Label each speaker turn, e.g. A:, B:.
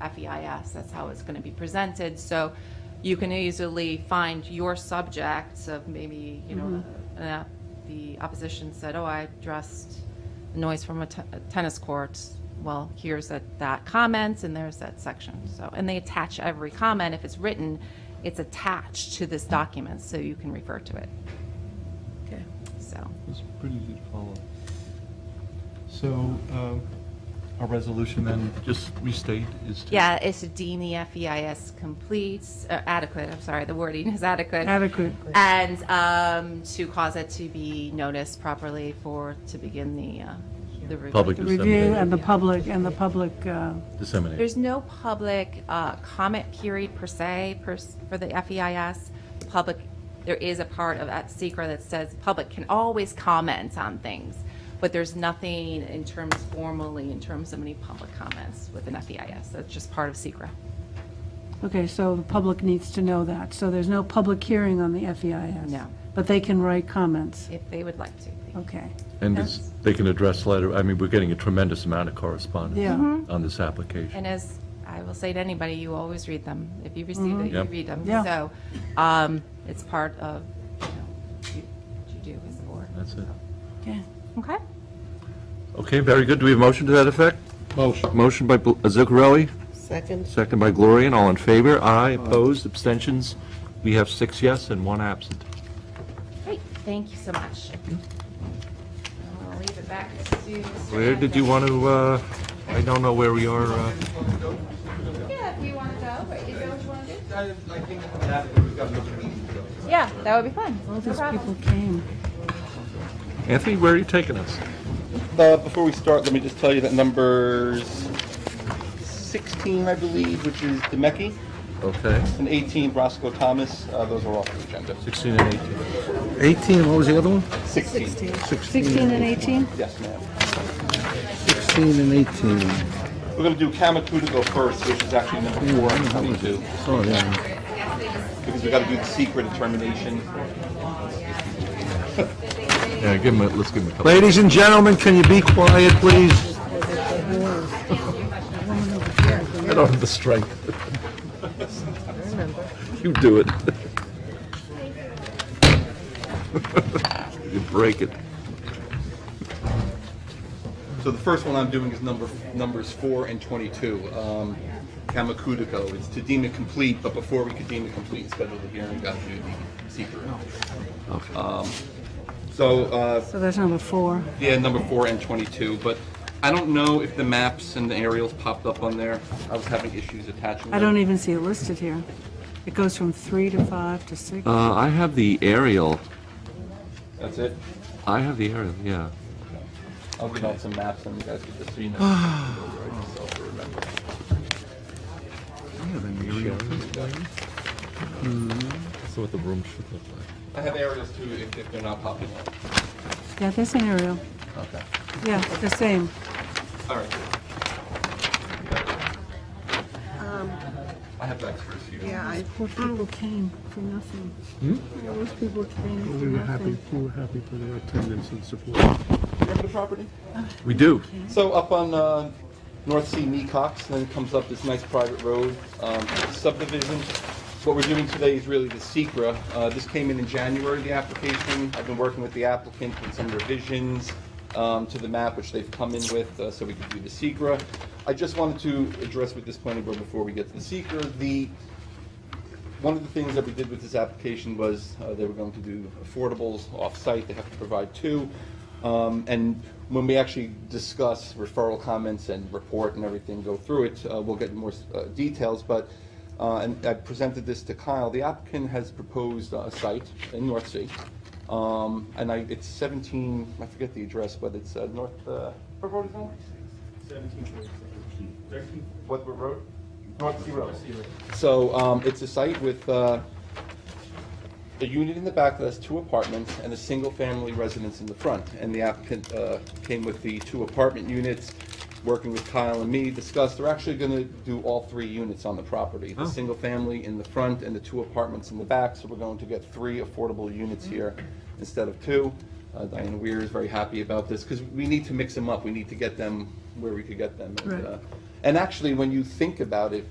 A: GIS, E that's how it's gonna be presented, so you can easily find your subjects of maybe, you know, uh, the opposition said, oh, I addressed noise from a te- a tennis court, well, here's that, that comment, and there's that section, so, and they attach every comment, if it's written, it's attached to this document, so you can refer to it,
B: Okay.
A: so.
C: It's pretty easy to follow. So, um,
D: uh,
C: our resolution then, just restate, is to...
A: Yeah, it's to deem the FEIS E complete, uh, adequate, I'm sorry, the wording is adequate.
B: Adequate.
A: And um, to cause it to be noticed properly for, to begin the, uh, the review.
D: Public
B: The review and
D: dissemination.
B: the public, and the public, uh,
D: Disseminate.
A: There's no public uh, comment period per se, per s- for the FEIS. Public, there is a part of that secret that says public can always comment on things, but there's nothing in terms formally, in terms of any public comments with an FEIS. That's just part of secret.
B: okay, so the public needs to know that. So there's no public hearing on the FEIS?
A: No.
B: But they can write comments?
A: if they would like to. Thank you.
B: Okay,
D: And it's- they can address letter, I mean, we're getting a tremendous amount of
B: Yeah.
E: Mm-hmm.
D: correspondence on this application.
A: And as I will say to anybody, you always read them. If you receive it, you
D: Mm-hmm. Yep.
A: read them.
B: Yeah.
A: So um, it's part of, you know, you- what you do as a board.
D: That's it.
B: okay.
A: Okay?
D: Okay, very good. Do we have a motion to that effect? Motion. Motion by Bl- uh, Zuccarelli,
F: Second?
D: second by Gloria, and all in favor? Aye, opposed, abstentions? We have six yes and one absent.
A: Great, thank you so much. I'm going to leave it back to Mr.
D: Where did you
A: Hudson.
D: want to, uh, I don't know where we are, uh,
A: Yeah, if you want to go, but is that what you want to do? Yeah, that would be fun.
B: All
A: No
B: these
A: problem.
B: people came.
D: Anthony, where are you taking us?
F: Uh, before we start, let me just tell you that numbers 16, I believe, which is Demeki,
D: Okay,
F: and 18, Roscoe Thomas, uh, those are off the agenda.
D: 16 and 18.
G: 18, what was the other one?
F: 16,
B: 16 and 18?
F: yes ma'am.
G: 16 and 18.
F: We're gonna do Kamakuta go first, which is actually number four and 22,
G: Oh, yeah.
F: because we gotta do the secret determination.
D: Yeah, give him, a- let's give him a couple.
G: Ladies and gentlemen, can you be quiet, please?
D: I don't have the strength. You do it. You break it.
F: So the first one I'm doing is number, numbers four and 22, um, Kamakuta go. It's to deem it complete, but before we could deem it complete, and schedule the hearing, we gotta do the secret. Um, So, uh,
B: So that's number four.
F: Yeah, number four and 22, but I don't know if the maps and the aerials popped up on there. I was having issues attaching them.
B: I don't even see it listed here. It goes from three to five to six.
D: Uh, I have the aerial.
B: e-
F: That's it?
D: I have the aerial, yeah.
F: I'll get out some maps and you guys get this, so you know.
D: So what the room should look like.
F: I have aerials too, if, if they're not popping up.
B: Yeah, that's an aerial.
F: Okay.
B: Yeah, the same.
F: All right. Um, I have extras here.
E: Yeah, I,
B: Poor people came for nothing. Those people came for
G: We were happy,
B: nothing.
G: we were happy for their attendance and support.
F: Remember the property?
D: We do.
F: So up on uh, North Sea Mecox, and then it comes up this nice private road um, subdivision. What we're doing today is really the secra. Uh This came in in January, the application. I've been working with the applicant on some revisions um, to the map, which they've come in with, uh, so we can do the secra. I just wanted to address with this planning board before we get to the secra the one of the things that we did with this application was uh, they were going to do affordables off-site, they have to provide two. Um, And when we actually discuss referral comments and report and everything, go through it, uh, we'll get more uh, details, but, uh, and I presented this to Kyle, the applicant has proposed a site in North Sea. Um, And I, it's 17, I forget the address, but it's uh, North, uh, what road is that?
H: 13
F: What road? North Sea Road. So um, it's a site with uh, a unit in the back that has two apartments and a single-family residence in the front. And the applicant uh, came with the two apartment units, working with Kyle and me, discussed, they're actually going to do all three units on the property. The single-family in the front and the two apartments in the back, so we're going to get three affordable units here instead of two. Uh, Diane Weir is very happy about this, because we need to mix them up. We need to get them where we could get them. And,
B: Right.
F: uh, And actually, when you think about it,